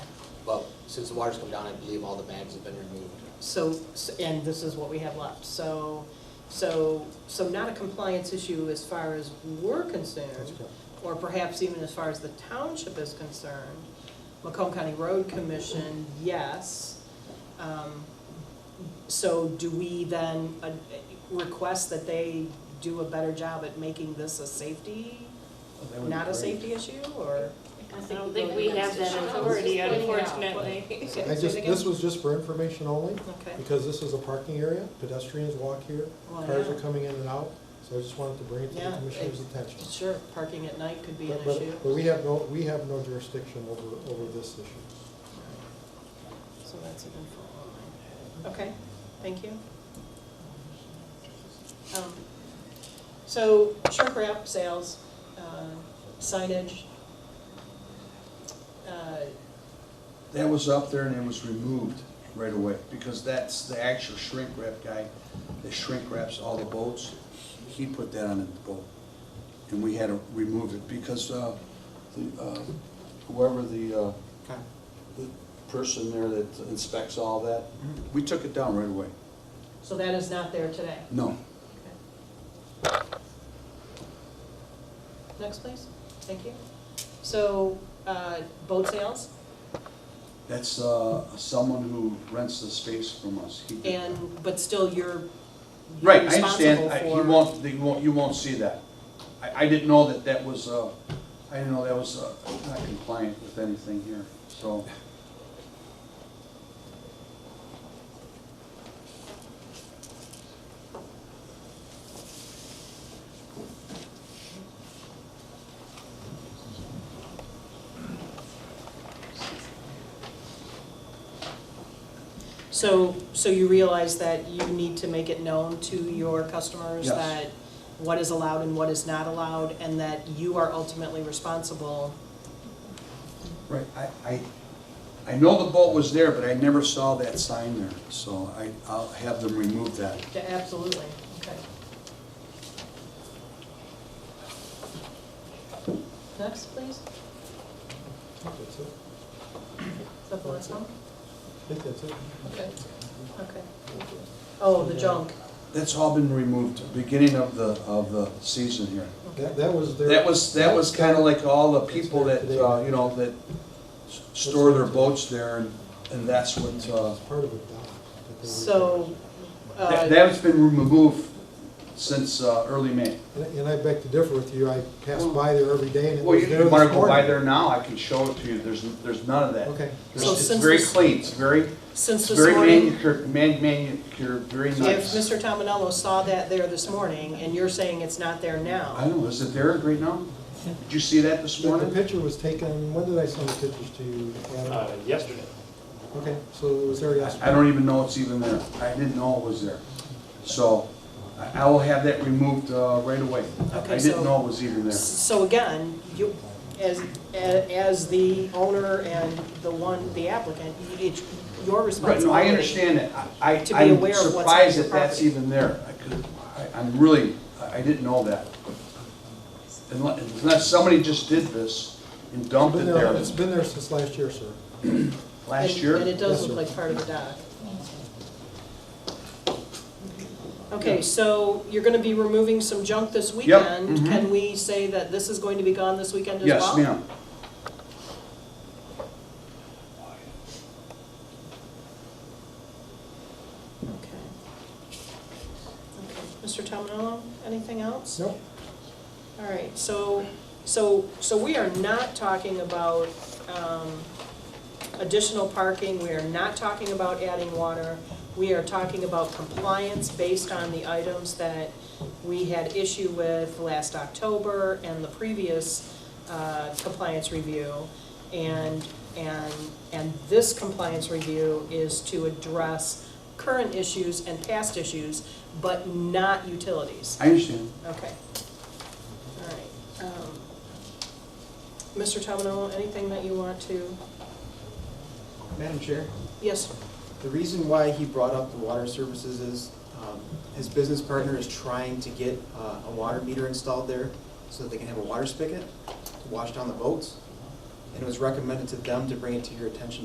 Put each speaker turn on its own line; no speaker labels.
since the water's come down, I believe all the bags have been removed.
So, s- and this is what we have left, so, so, so not a compliance issue as far as we're concerned, or perhaps even as far as the township is concerned. Macomb County Road Commission, yes. Um, So do we then uh, request that they do a better job at making this a safety, not a safety issue, or?
I don't think we have that authority, unfortunately.
Say-
I
say it
just,
again?
this was just for information only,
Okay.
because this is a parking area, pedestrians walk here,
Well,
cars
yeah.
are coming in and out, so I just wanted to bring it to
Yeah,
the commissioner's
it-
attention.
Sure, parking at night could be an
But, but-
issue.
but we have no, we have no jurisdiction over, over this issue.
So that's an info online. Okay, thank you. Um, So shrink wrap sales, uh, signage. uh,
That was up there and it was removed right away, because that's the actual shrink wrap guy that shrink wraps all the boats. He put that on the boat, and we had to remove it, because uh, the, uh, whoever the, uh, the person there that inspects all that, we took it down right away.
So that is not there today.
No,
Okay. Next, please. Thank you. So uh, boat sales
that's uh, someone who rents the space from us. He did-
and, but still you're you're
Right, I
responsible
understand,
for.
I- you won't, you won't, you won't see that. I, I didn't know that that was, uh, I didn't know that was, uh, not compliant with anything here, so.
So, so you realize that you need to make it known to your customers
Yes.
that what is allowed and what is not allowed, and that you are ultimately responsible?
Right, I, I, I know the boat was there, but I never saw that sign there, so I, I'll have them remove that.
Yeah, Absolutely, okay. Next, please, is
That's it.
that the last one?
I think that's it.
Okay, okay. Oh, the junk,
That's all been removed, beginning of the, of the season here.
That, that was their.
That was, that was kinda like all the people that, uh, you know, that s- store their boats there, and, and that's what, uh,
It's part of the dock. that they were-
so,
That-
uh,
That's been removed since uh, early May.
And I- and I beg to differ with you, I pass by there every day and it
Well,
was
you
there this
want to go by
morning.
there now, I can show it to you, there's, there's none of that.
Okay.
There's-
So
It's
since
very
this-
clean, it's very,
since
it's
this
very
morning,
manicured, man, manicured, very
if
nice.
Mr. Tominello saw that there this morning, and you're saying it's not there now?
I don't know, is it there right now? Did you see that this
But the
morning?
picture was taken, when did I send the pictures to you,
Uh,
Adam?
yesterday.
Okay, so it was there yesterday.
I don't even know it's even there, I didn't know it was there. So, I I will have that removed uh, right away. I-
Okay,
I
so-
didn't know it was even there.
So again, you, as, a- as the owner and the one, the applicant, it's your
Right,
responsibility.
no, I understand that. I,
To be
I- I'm
aware of what's on
surprised
your
that that's
property.
even there. I could, I, I'm really, I I didn't know that. Unless, unless somebody just did this and dumped it
Been there-
there
It's been there since last year, sir.
last
And-
year.
And it does
Yes,
look
sir.
like part of the dock. Okay, so you're gonna be removing some junk this weekend.
mhm.
Can we say that this is going to be gone this weekend as well?
Yes, ma'am.
Okay. Okay, Mr. Tominello, anything else?
Nope.
All right, so, so, so we are not talking about um, additional parking, we are not talking about adding water. We are talking about compliance based on the items that we had issue with last October and the previous uh, compliance review. And, and, and this compliance review is to address current issues and past issues, but not utilities.
I understand.
Okay. All right. um, Mr. Tominello, anything that you want to,
Madam Chair,
yes,
the reason why he brought up the water services is um, his business partner is trying to get uh, a water meter installed there so that they can have a water spigot to wash down the boats. And it was recommended to them to bring it to your attention